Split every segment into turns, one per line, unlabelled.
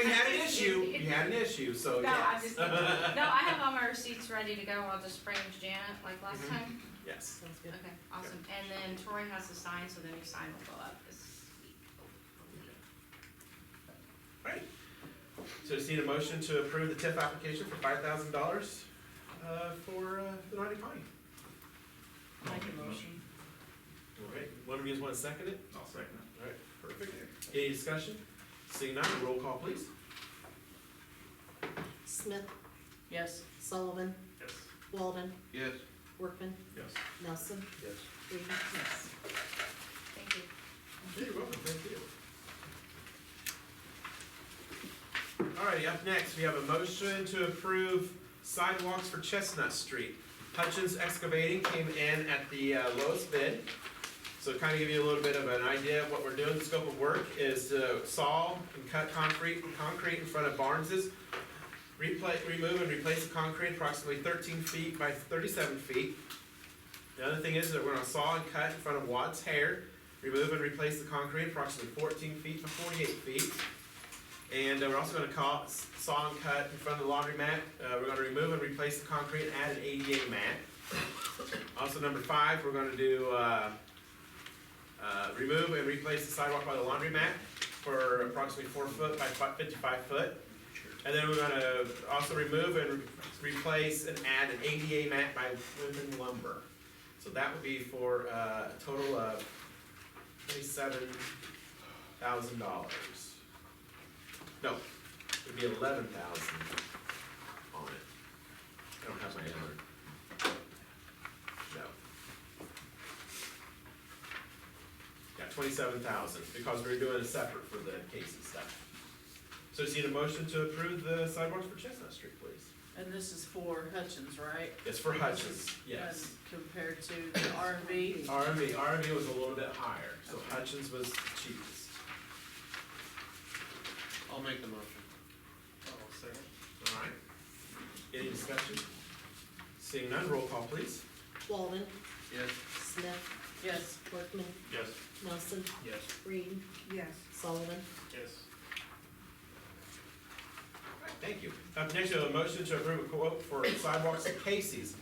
issue, you had an issue, so
No, I
yes.
just, no, I have all my receipts ready to go, I'll just bring them to Janet like last
Mhm.
time.
Yes,
Sounds good.
Okay, awesome, and then Tori has to sign, so the new sign will go up this week.
so just need a motion to approve the TIF application for five thousand dollars, uh, for, uh, the Naughty Potty.
Make a motion.
All right, one of you guys wanna second it?
I'll second
All right, perfect. Any discussion? Seeing none, roll call please.
Smith,
Yes.
Sullivan,
it. Yes.
Walden,
Yes.
Workman,
Yes.
Nelson,
Yes.
Reed. Yes.
Thank you.
You're welcome, thank you. Alrighty, up next, we have a motion to approve sidewalks for Chestnut Street. Hutchins Excavating came in at the uh, lowest bid. So to kind of give you a little bit of an idea of what we're doing, the scope of work is to saw and cut concrete, concrete in front of Barnes's. Repla remove and replace the concrete approximately thirteen feet by thirty-seven feet. The other thing is that we're gonna saw and cut in front of Watts Hair remove and replace the concrete approximately fourteen feet to forty-eight feet. And uh, we're also gonna call, s- saw and cut in front of the laundry mat, uh, we're gonna remove and replace the concrete and add an ADA mat. Also, number five, we're gonna do, uh, uh, remove and replace the sidewalk by the laundry mat for approximately four foot by fi- fifty-five foot. And then we're gonna also remove and re- replace and add an ADA mat by Women Lumber. So that would be for, uh, a total of twenty-seven thousand dollars. No, it'd be eleven thousand on it. I don't have my number. No. Yeah, twenty-seven thousand, because we're doing it separate for the case and stuff. So just need a motion to approve the sidewalks for Chestnut Street, please.
And this is for Hutchins, right?
It's for Hutchins, yes.
And Compared to the RV.
RMV, RMV was a little bit higher, so Hutchins was cheapest.
I'll make the motion. I'll second.
Alright. Any discussion? Seeing none, roll call please.
Walden,
Yes.
Smith,
Yes.
Workman,
Yes.
Nelson,
Yes.
Reed,
Yes.
Sullivan,
Yes.
Thank you. Up next, we have a motion to approve a quote for sidewalks at Casey's.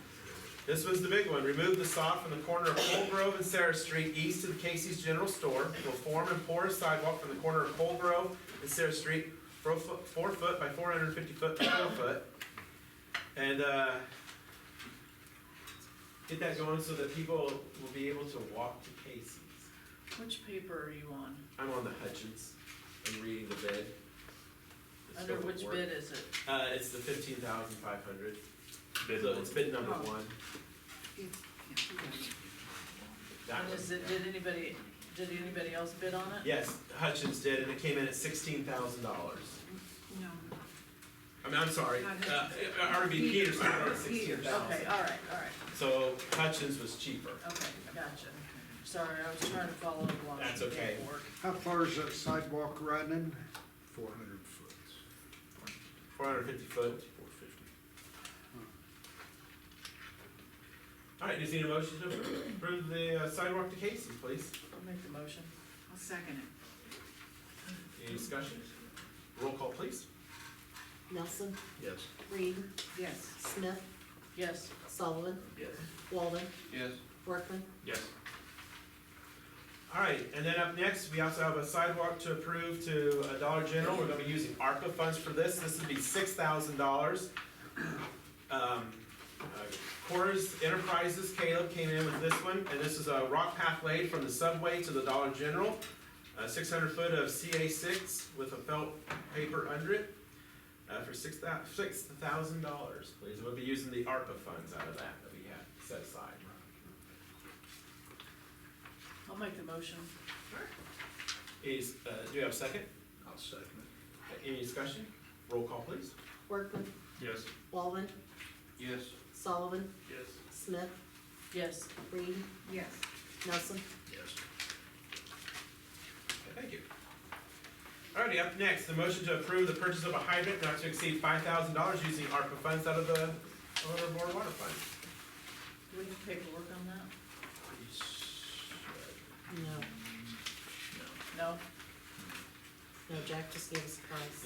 This was the big one. Remove the sod from the corner of Cole Grove and Sarah Street east to the Casey's General Store. Will form and pour a sidewalk from the corner of Cole Grove and Sarah Street, four foot, four foot by four hundred and fifty foot by four foot. And, uh, get that going so that people will be able to walk to Casey's.
Which paper are you on?
I'm on the Hutchins. I'm reading the bid. The
Under
scope of
which
work.
bid is it?
Uh, it's the fifteen thousand five hundred.
Bid
So it's bid number
Oh.
one. That
And is
one,
it,
yeah.
did anybody, did anybody else bid on it?
Yes, Hutchins did, and it came in at sixteen thousand dollars.
No.
I mean, I'm sorry,
Not
uh, RV Peters got it at Uh, sixteen
Peters, okay,
thousand.
all right, all right,
So Hutchins was cheaper.
okay, gotcha. Sorry, I was trying to follow along.
That's
with the
okay.
paperwork.
How far is that sidewalk running? Four hundred foot.
Four hundred fifty foot.
Four fifty.
All right, just need a motion to approve the uh, sidewalk to Casey, please.
I'll make the motion. I'll second it.
Any discussion? Roll call, please.
Nelson,
Yes.
Reed,
Yes.
Smith,
Yes.
Sullivan,
Yes.
Walden,
Yes.
Workman,
Yes.
All right, and then up next, we also have a sidewalk to approve to uh, Dollar General. We're gonna be using ARPA funds for this. This would be six thousand dollars. Um, uh, Coors Enterprises, Caleb came in with this one, and this is a rock pathway from the subway to the Dollar General. Six hundred foot of CA six with a felt paper under it, uh, for six thou- six thousand dollars, please. We'll be using the ARPA funds out of that that we have set aside.
I'll make the motion.
Is, uh, do you have a second?
I'll second
Any discussion? Roll call, please.
Workman,
it. Yes.
Walden,
Yes.
Sullivan,
Yes.
Smith,
Yes.
Reed,
Yes.
Nelson,
Yes.
Thank you. Alrighty, up next, the motion to approve the purchase of a hydrant not to exceed five thousand dollars using ARPA funds out of the overboard water fund.
Do we have paperwork on that?
no,
No?
no, Jack just gave us a price.